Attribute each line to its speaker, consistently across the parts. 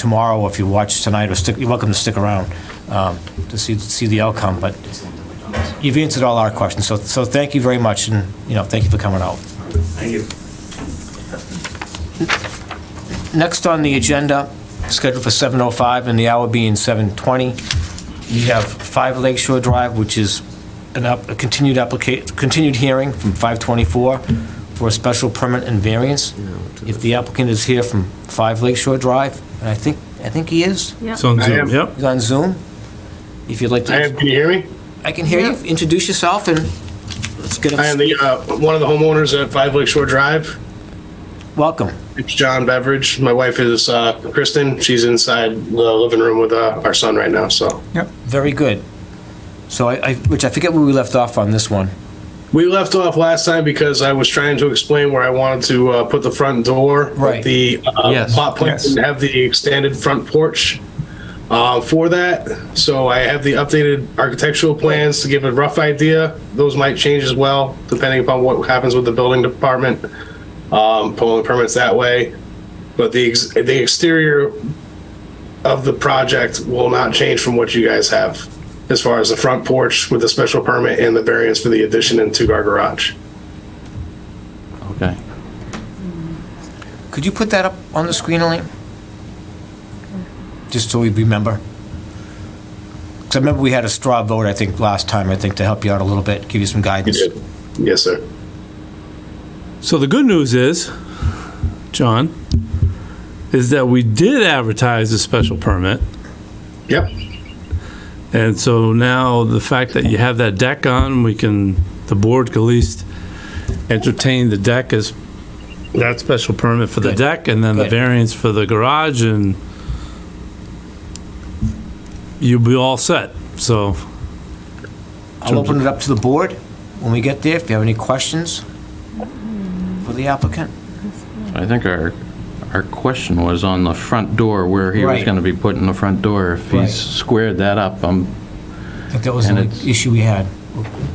Speaker 1: tomorrow, or if you watch tonight, or stick, you're welcome to stick around um, to see, see the outcome, but you've answered all our questions, so, so thank you very much, and, you know, thank you for coming out.
Speaker 2: Thank you.
Speaker 1: Next on the agenda, scheduled for 7:05 and the hour being 7:20, we have 5 Lake Shore Drive, which is an up, a continued applica, continued hearing from 5:24 for a special permit and variance. If the applicant is here from 5 Lake Shore Drive, and I think, I think he is,
Speaker 3: Yeah.
Speaker 4: It's on
Speaker 2: I am.
Speaker 4: Zoom, yep.
Speaker 1: he's on Zoom, if you'd like to...
Speaker 2: I am, can you hear me?
Speaker 1: I can hear you. Introduce yourself and let's get
Speaker 2: I am
Speaker 1: a
Speaker 2: the, uh, one of the homeowners at Five Lake Shore Drive.
Speaker 1: welcome.
Speaker 2: It's John Beveridge. My wife is, uh, Kristen. She's inside the living room with, uh, our son right now, so.
Speaker 1: Very good. So I, I, which I forget where we left off on this one.
Speaker 2: We left off last time because I was trying to explain where I wanted to, uh, put the front door. with
Speaker 1: Right.
Speaker 2: The, uh,
Speaker 4: Yes,
Speaker 2: plot plan
Speaker 4: yes.
Speaker 2: and have the extended front porch, uh, for that. So I have the updated architectural plans to give a rough idea. Those might change as well, depending upon what happens with the building department. um, pulling permits that way. But the ex- the exterior of the project will not change from what you guys have, as far as the front porch with the special permit and the variance for the addition and two-car garage.
Speaker 4: Okay.
Speaker 1: Could you put that up on the screen, Elaine? Just so we remember. Because I remember we had a straw vote, I think, last time, I think, to help you out a little bit, give you some guidance.
Speaker 2: Yes, sir.
Speaker 4: So the good news is, John, is that we did advertise a special permit.
Speaker 2: Yep.
Speaker 4: And so now the fact that you have that deck on, we can, the board can at least entertain the deck as that special permit for the
Speaker 1: Good.
Speaker 4: deck and then the
Speaker 1: Good.
Speaker 4: variance for the garage and you'll be all set. So,
Speaker 1: I'll open it up to the board when we get there, if you have any questions for the applicant.
Speaker 5: I think our, our question was on the front door, where he was
Speaker 1: Right.
Speaker 5: gonna be putting the front door. If
Speaker 1: Right.
Speaker 5: he's squared that up, um,
Speaker 1: I think that was
Speaker 5: And
Speaker 1: the
Speaker 5: it's-
Speaker 1: issue we had.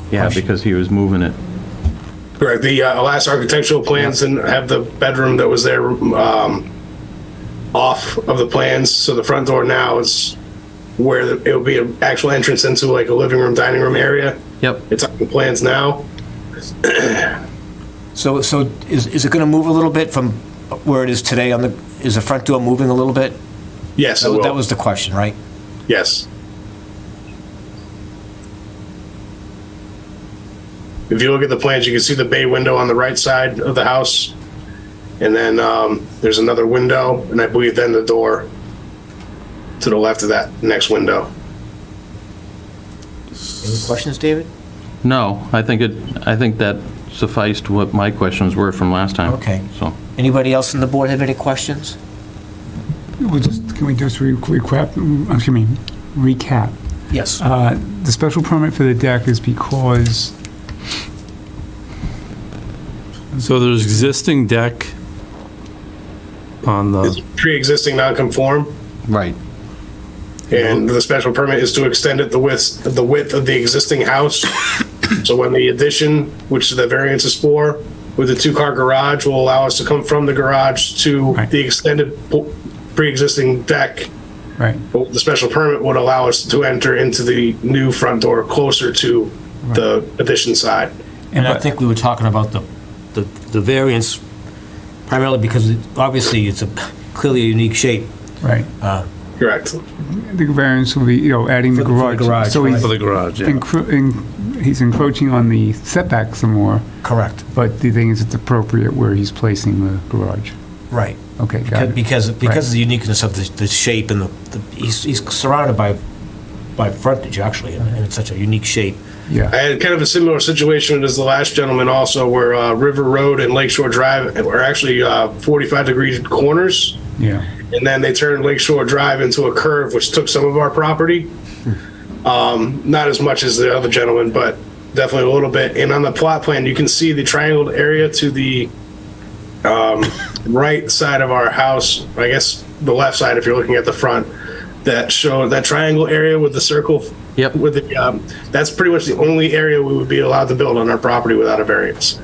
Speaker 5: yeah,
Speaker 1: Question.
Speaker 5: because he was moving it.
Speaker 2: Correct. The uh, last architectural plans and have the bedroom that was there um, off of the plans. So the front door now is where the, it will be an actual entrance into like a living room, dining room area.
Speaker 5: Yep.
Speaker 2: It's on the plans now.
Speaker 1: So, so is, is it going to move a little bit from where it is today on the, is the front door moving a little bit?
Speaker 2: Yes, it
Speaker 1: That
Speaker 2: will.
Speaker 1: that was the question, right?
Speaker 2: Yes. If you look at the plans, you can see the bay window on the right side of the house. And then um, there's another window, and I believe then the door to the left of that next window.
Speaker 1: Any questions, David?
Speaker 5: No, I think it, I think that sufficed what my questions were from last time.
Speaker 1: Okay.
Speaker 5: So,
Speaker 1: Anybody else on the board have any questions?
Speaker 6: We'll just, can we just re- recap, mm, excuse me, recap?
Speaker 1: Yes.
Speaker 6: Uh, The special permit for the deck is because,
Speaker 4: so there's existing deck on the.
Speaker 2: It's pre-existing non-conform,
Speaker 5: right.
Speaker 2: and the special permit is to extend it the width, the width of the existing house. So when the addition, which the variance is for, with the two-car garage will allow us to come from the garage to
Speaker 6: Right.
Speaker 2: the extended po- pre-existing deck.
Speaker 6: right,
Speaker 2: But The special permit would allow us to enter into the new front door closer to the addition side.
Speaker 1: And I think we were talking about the, the the variance primarily because it- obviously it's a clearly a unique shape.
Speaker 6: right.
Speaker 2: Correct.
Speaker 6: The variance will be, you know, adding the
Speaker 1: For the- for the
Speaker 6: garage.
Speaker 1: garage,
Speaker 6: So he's
Speaker 4: For the garage, yeah.
Speaker 6: encro- en- he's encroaching on the setback some more,
Speaker 1: Correct.
Speaker 6: but the thing is, it's appropriate where he's placing the garage.
Speaker 1: Right.
Speaker 6: Okay, got it.
Speaker 1: Because, because of the uniqueness of the, the shape and the, the- he's, he's surrounded by, by frontage actually, and and it's such a unique shape.
Speaker 2: I
Speaker 6: Yeah,
Speaker 2: had kind of a similar situation as the last gentleman also, where uh, River Road and Lakeshore Drive are actually uh, 45 degree corners.
Speaker 6: yeah.
Speaker 2: and then they turned Lakeshore Drive into a curve, which took some of our property. Um, not as much as the other gentleman, but definitely a little bit. And on the plot plan, you can see the triangled area to the um, right side of our house. I guess the left side, if you're looking at the front, that show that triangle area with the circle.
Speaker 5: Yep.
Speaker 2: With the, um, that's pretty much the only area we would be allowed to build on our property without a variance.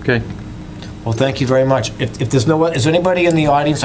Speaker 5: Okay.
Speaker 1: Well, thank you very much. If, if there's no, one- is there anybody in the audience